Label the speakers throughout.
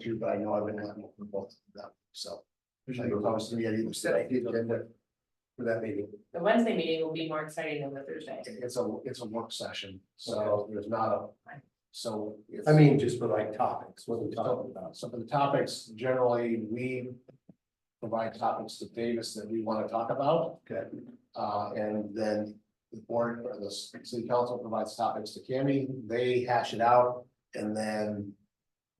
Speaker 1: two, but I know I've been asking for both of them, so. I promised to me, I either said I did agenda for that meeting.
Speaker 2: The Wednesday meeting will be more exciting than the Thursday.
Speaker 1: It's a, it's a work session, so there's not a, so. it's-
Speaker 3: I mean, just for like topics, what we talk
Speaker 1: So
Speaker 3: about.
Speaker 1: so for the topics, generally, we provide topics to Davis that we want to talk about.
Speaker 3: Okay.
Speaker 1: Uh, and then the board or the city council provides topics to Cami, they hash it out, and then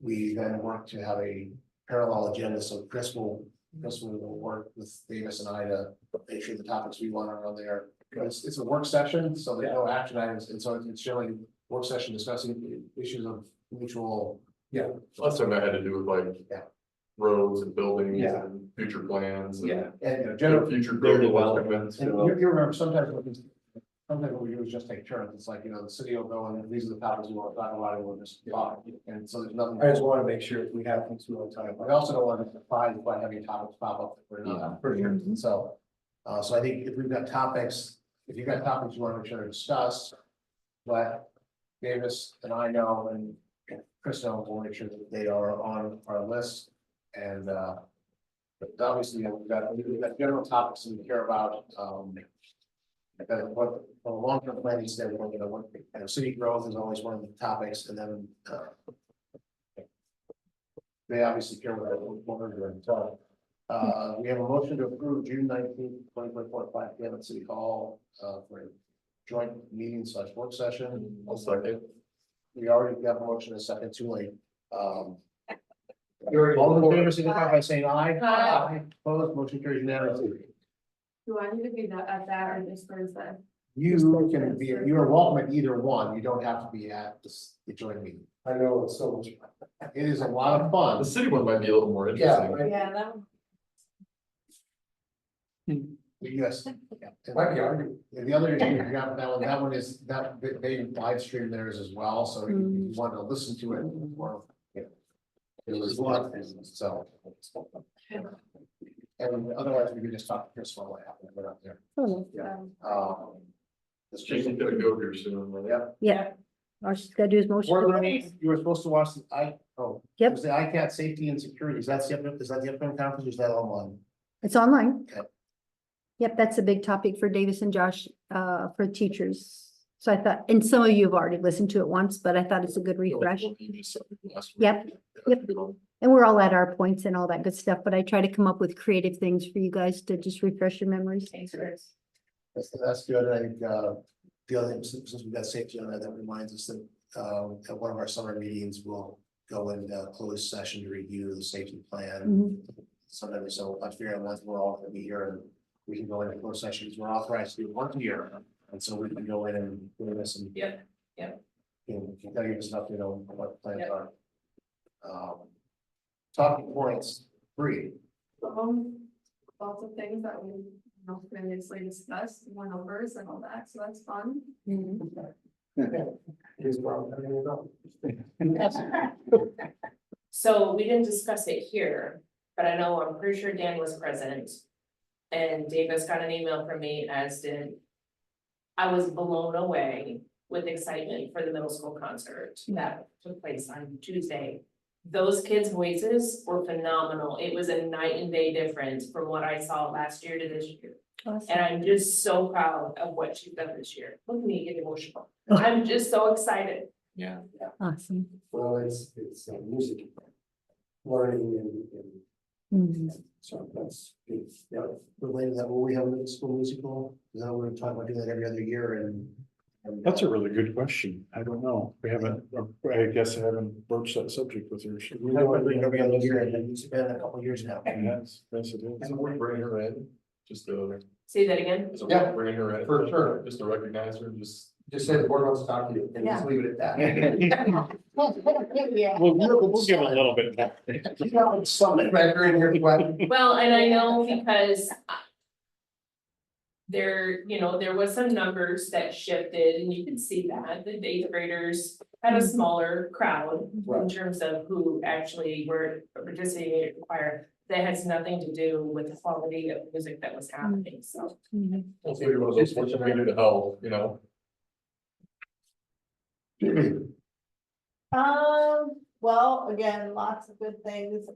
Speaker 1: we then work to have a parallel agenda, so Chris will, Chris will work with Davis and I to make sure the topics we want are on there. It's, it's a work session, so there's no action items, and so it's generally work session discussing issues of mutual
Speaker 4: Last time I had to do with
Speaker 1: Yeah.
Speaker 4: like roads and buildings
Speaker 3: Yeah.
Speaker 4: and future plans
Speaker 3: Yeah.
Speaker 1: And
Speaker 4: and
Speaker 1: you know,
Speaker 4: their
Speaker 1: generally,
Speaker 4: future
Speaker 3: Their
Speaker 4: growth developments.
Speaker 1: and you you remember sometimes what we, sometimes what we do is just take turns. It's like, you know, the city will go and these are the topics we want to talk about and we'll just talk. And so there's nothing.
Speaker 3: I just want to make sure if we have things we want to talk
Speaker 1: We
Speaker 3: about.
Speaker 1: also don't want to be surprised by having topics pop up that we're not.
Speaker 3: For sure.
Speaker 1: So, uh, so I think if we've got topics, if you've got topics you want to make sure to discuss, but Davis and I know and Chris know, we'll make sure that they are on our list and, uh, but obviously, you know, we've got, we've got general topics that we care about, um, that what, the long-term planning standpoint, you know, what, you know, city growth is always one of the topics and then, uh, they obviously care about what we're doing, so. Uh, we have a motion to approve June nineteenth, twenty twenty-four, five P M at City Hall, uh, for a joint meeting slash work session.
Speaker 4: I'll second.
Speaker 1: We already got a motion and a second too late. Um,
Speaker 3: You're-
Speaker 1: all in favor, signify by saying aye.
Speaker 2: Aye.
Speaker 1: Opposed, motion carries unanimously.
Speaker 2: Do I need to be that, at that or this Thursday?
Speaker 1: You can be, you are welcome at either one. You don't have to be at this, the joint meeting.
Speaker 3: I know it's so much.
Speaker 1: It is a lot of
Speaker 4: The
Speaker 1: fun.
Speaker 4: city one might be a little more interesting.
Speaker 3: right.
Speaker 2: Yeah, that one.
Speaker 1: Yes.
Speaker 3: Might be argued.
Speaker 1: And the other issue, you got that one, that one is, that, they- they live stream theirs as well, so if you want to listen to it, well, yeah. It was one, so. And otherwise, we could just talk to Chris while what happened, we're not there.
Speaker 5: Oh,
Speaker 2: Um,
Speaker 1: Um, It's just,
Speaker 4: Jason's gonna go here soon, right?
Speaker 1: yeah.
Speaker 5: Yeah, all she's gotta do is motion.
Speaker 1: Board
Speaker 5: to-
Speaker 1: meeting, you were supposed to watch the I, oh.
Speaker 5: Yep.
Speaker 1: It was the ICAT Safety and Security, is that the, up- is that the upcoming conference, or is that online?
Speaker 5: It's online.
Speaker 1: Yep.
Speaker 5: Yep, that's a big topic for Davis and Josh, uh, for teachers. So I thought, and some of you have already listened to it once, but I thought it's a good refresh. Yep, yep. And we're all at our points and all that good stuff, but I try to come up with creative things for you guys to just refresh your memories.
Speaker 2: Thanks, Chris.
Speaker 1: That's, that's good, I think, uh, the other, thing, since since we've got safety on that, that reminds us that, um, at one of our summer meetings, we'll go in uh closed session to review the safety plan.
Speaker 5: Mhm.
Speaker 1: Sometimes, so I figure once we're all gonna be here, and we can go into closed sessions, we're authorized to do one year, and so we can go in and do this and.
Speaker 2: Yep, yep.
Speaker 1: And that'll give us an update on what the plans
Speaker 2: Yep.
Speaker 1: are. Um, talking points, three,
Speaker 2: Um, lots of things that we, you know, previously discussed, one overs and all that, so that's fun.
Speaker 3: Here's where I'm gonna go.
Speaker 2: So we didn't discuss it here, but I know, I'm pretty sure Dan was present. And Davis got an email from me, as did. I was blown away with excitement for the middle school concert that took place on Tuesday. Those kids' voices were phenomenal. It was a night and day difference from what I saw last year to this year. And
Speaker 5: Awesome.
Speaker 2: I'm just so proud of what she's done this year. Look at me get emotional. I'm just so excited.
Speaker 4: Yeah.
Speaker 5: Awesome.
Speaker 3: Well, it's, it's uh, music. Learning and, and
Speaker 5: Mhm.
Speaker 3: so that's, it's, yeah.
Speaker 1: related to that, will we have a middle school musical, is that what we're talking about, doing that every other year and? and, uh,
Speaker 6: That's a really good question. I don't know. We haven't, I guess I haven't broached that subject with her. Should we?
Speaker 1: We've been doing it Every other year, and it's been a couple of years now.
Speaker 6: Yes, yes, it is.
Speaker 4: Is it worth bringing her in? Just to,
Speaker 2: Say that again.
Speaker 4: is it
Speaker 1: Yeah.
Speaker 4: worth bringing her in?
Speaker 3: For sure.
Speaker 4: Just to recognize her, just.
Speaker 3: Just say the board wants to talk to you and just leave it at that.
Speaker 1: Yeah.
Speaker 6: Well, we'll, we'll give it a little bit. more.
Speaker 1: You got like something right here in your way.
Speaker 2: Well, and I know because. I- There, you know, there was some numbers that shifted and you can see that the eighth graders had a smaller crowd. In
Speaker 3: Right.
Speaker 2: terms of who actually were participating in choir, that has nothing to do with the quality of music that was happening, so.
Speaker 5: Mhm.
Speaker 4: Well, maybe one of those things we do to help, you know?
Speaker 2: Um,
Speaker 7: Well, again, lots of good things